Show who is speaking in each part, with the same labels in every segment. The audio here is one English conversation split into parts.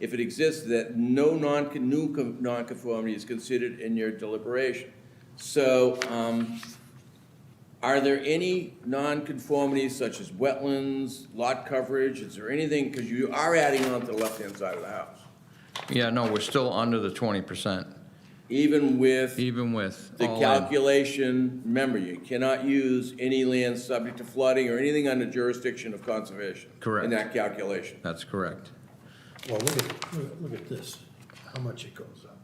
Speaker 1: if it exists, that no non, new con- nonconformity is considered in your deliberation. So, um, are there any nonconformities such as wetlands, lot coverage, is there anything, because you are adding on to the left-hand side of the house,
Speaker 2: Yeah, no, we're still under the twenty percent,
Speaker 1: even with
Speaker 2: even with
Speaker 1: the
Speaker 2: all in.
Speaker 1: calculation, remember, you cannot use any land subject to flooding or anything under jurisdiction of conservation. In
Speaker 2: Correct.
Speaker 1: that calculation.
Speaker 2: That's correct.
Speaker 3: Well, look at, look at- look at this, how much it goes up.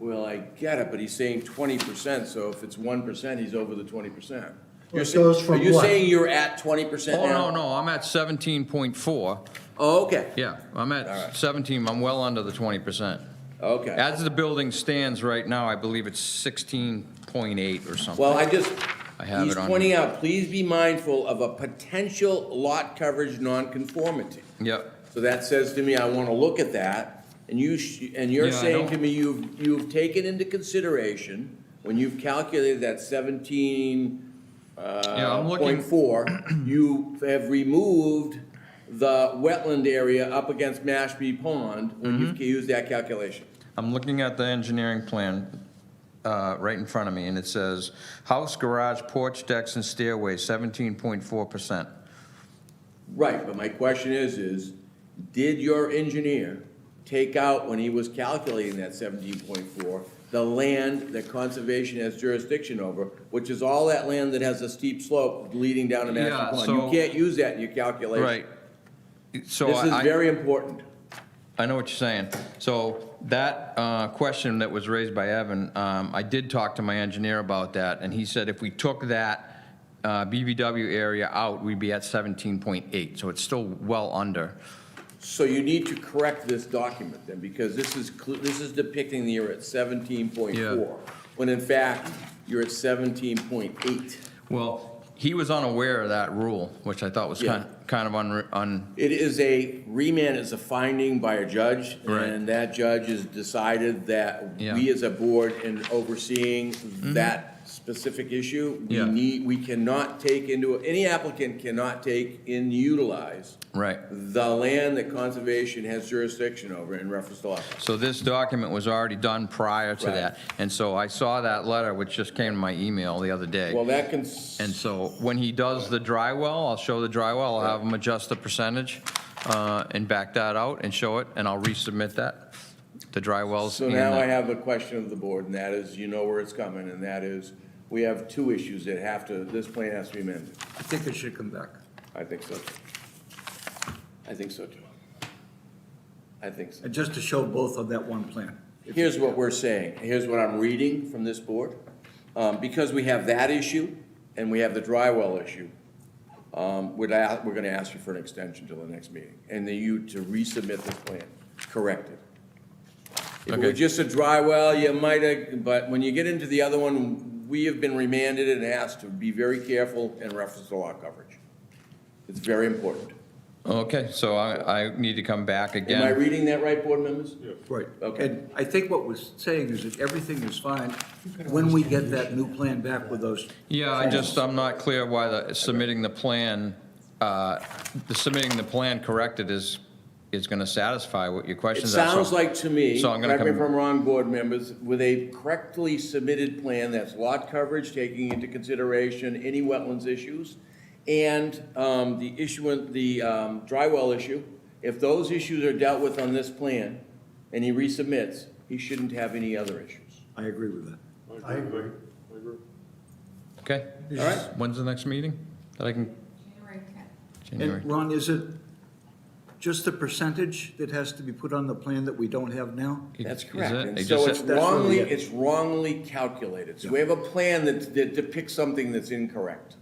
Speaker 1: Well, I get it, but he's saying twenty percent, so if it's one percent, he's over the twenty percent.
Speaker 3: Well, it goes
Speaker 1: Are
Speaker 3: from
Speaker 1: you
Speaker 3: what?
Speaker 1: saying you're at twenty percent
Speaker 2: Oh,
Speaker 1: now?
Speaker 2: no, no, I'm at seventeen point four.
Speaker 1: Oh, okay,
Speaker 2: Yeah, I'm
Speaker 1: All right.
Speaker 2: at seventeen, I'm well under the twenty percent.
Speaker 1: okay.
Speaker 2: As the building stands right now, I believe it's sixteen point eight or something.
Speaker 1: Well, I just,
Speaker 2: I have
Speaker 1: he's
Speaker 2: it on
Speaker 1: pointing out, please be mindful of a potential lot coverage nonconformity.
Speaker 2: Yep,
Speaker 1: So that says to me, I want to look at that, and you, sh- and you're
Speaker 2: Yeah, I
Speaker 1: saying to
Speaker 2: don't-
Speaker 1: me, you've, you've taken into consideration, when you've calculated that seventeen,
Speaker 2: Yeah,
Speaker 1: uh,
Speaker 2: I'm looking-
Speaker 1: point four, you have removed the wetland area up against Mashpee Pond, when
Speaker 2: Mm-hmm.
Speaker 1: you've used that calculation.
Speaker 2: I'm looking at the engineering plan, uh, right in front of me, and it says, house, garage, porch, decks, and stairway, seventeen point four percent.
Speaker 1: Right, but my question is, is did your engineer take out, when he was calculating that seventeen point four, the land that conservation has jurisdiction over, which is all that land that has a steep slope leading down to
Speaker 2: Yeah,
Speaker 1: Mashpee Pond? You
Speaker 2: so-
Speaker 1: can't use that in your calculation.
Speaker 2: Right. So
Speaker 1: This is
Speaker 2: I-
Speaker 1: very important.
Speaker 2: I know what you're saying. So that uh, question that was raised by Evan, um, I did talk to my engineer about that, and he said if we took that uh, BBW area out, we'd be at 17.8, so it's still well under.
Speaker 1: So you need to correct this document then, because this is, cl- this is depicting that you're at seventeen point four, when in fact, you're at seventeen point eight.
Speaker 2: Well, he was unaware of that rule, which I thought was
Speaker 1: Yeah.
Speaker 2: kind kind of unre- un,
Speaker 1: It is a, remand is a finding by a judge,
Speaker 2: Right.
Speaker 1: and that judge has decided that we
Speaker 2: Yeah. Mm-hmm.
Speaker 1: as a board in overseeing that specific issue, we
Speaker 2: Yeah.
Speaker 1: need, we cannot take into, any applicant cannot take and utilize
Speaker 2: right.
Speaker 1: the land that conservation has jurisdiction over in reference to lot.
Speaker 2: So this document was already done prior to
Speaker 1: Right.
Speaker 2: that. And so I saw that letter, which just came to my email the other day.
Speaker 1: Well, that can,
Speaker 2: And so when he does the dry well, I'll show the dry well, I'll have him adjust the percentage uh, and back that out and show it, and I'll resubmit that, the dry wells.
Speaker 1: so
Speaker 2: and
Speaker 1: now
Speaker 2: the-
Speaker 1: I have a question of the board, and that is, you know where it's coming, and that is, we have two issues that have to, this plan has to be amended.
Speaker 4: I think it should come back.
Speaker 1: I think so. too. I think so too. I think so.
Speaker 4: And uh, just to show both on that one plan.
Speaker 1: Here's what we're saying, here's what I'm reading from this board. Um, because we have that issue and we have the dry well issue, um, we're, a- we're gonna ask you for an extension till the next meeting. And then you to resubmit this plan, correct it. If it were
Speaker 2: Okay.
Speaker 1: just a dry well, you might have, but when you get into the other one, we have been remanded and asked to be very careful in reference to lot coverage. It's very important.
Speaker 2: Okay, so I, I need to come back
Speaker 1: Am I
Speaker 2: again.
Speaker 1: reading that right, board members?
Speaker 4: Right.
Speaker 1: Okay.
Speaker 4: And I think what we're saying is that everything is fine when we get that new plan back with those.
Speaker 2: Yeah, I just, I'm not clear why the, submitting the plan, uh, the submitting the plan corrected is, is gonna satisfy what your
Speaker 1: It
Speaker 2: questions are. so-
Speaker 1: sounds like to me,
Speaker 2: So I'm gonna
Speaker 1: correct me if
Speaker 2: come-
Speaker 1: I'm wrong, board members, with a correctly submitted plan that's lot coverage, taking into consideration any wetlands issues, and um, the issue, the um, dry well issue, if those issues are dealt with on this plan, and he resubmits, he shouldn't have any other issues.
Speaker 4: I agree with that.
Speaker 3: I agree.
Speaker 2: Okay,
Speaker 1: All right?
Speaker 2: when's the next meeting? That I can,
Speaker 5: January 10th.
Speaker 2: January?
Speaker 4: And Ron, is it just the percentage that has to be put on the plan that we don't have now?
Speaker 1: That's
Speaker 2: Is
Speaker 1: correct.
Speaker 2: it?
Speaker 1: And
Speaker 2: It
Speaker 1: so
Speaker 2: just
Speaker 1: it's
Speaker 2: said-
Speaker 4: that's what we
Speaker 1: wrongly,
Speaker 4: get.
Speaker 1: it's wrongly calculated. So we have a plan that that depicts something that's incorrect.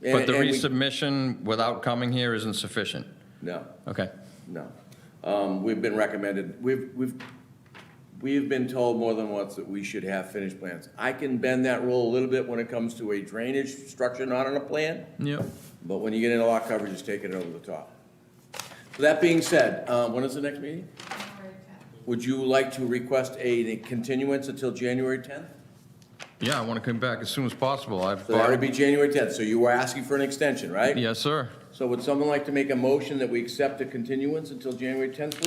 Speaker 2: But
Speaker 1: And-
Speaker 2: the
Speaker 1: and we-
Speaker 2: resubmission without coming here isn't sufficient.
Speaker 1: No.
Speaker 2: Okay,
Speaker 1: No. Um, We've been recommended, we've, we've, we've been told more than once that we should have finished plans. I can bend that rule a little bit when it comes to a drainage structure not on a plan,
Speaker 2: yep.
Speaker 1: but when you get into lot coverage, it's taking it over the top. So That being said, uh, when is the next meeting?
Speaker 5: January 10th.
Speaker 1: Would you like to request a a continuance until January 10th?
Speaker 2: Yeah, I want to come back as soon as possible. I've
Speaker 1: So that would
Speaker 2: already,
Speaker 1: be January 10th, so you were asking for an extension, right?
Speaker 2: yes, sir.
Speaker 1: So would someone like to make a motion that we accept a continuance until January 10th, please?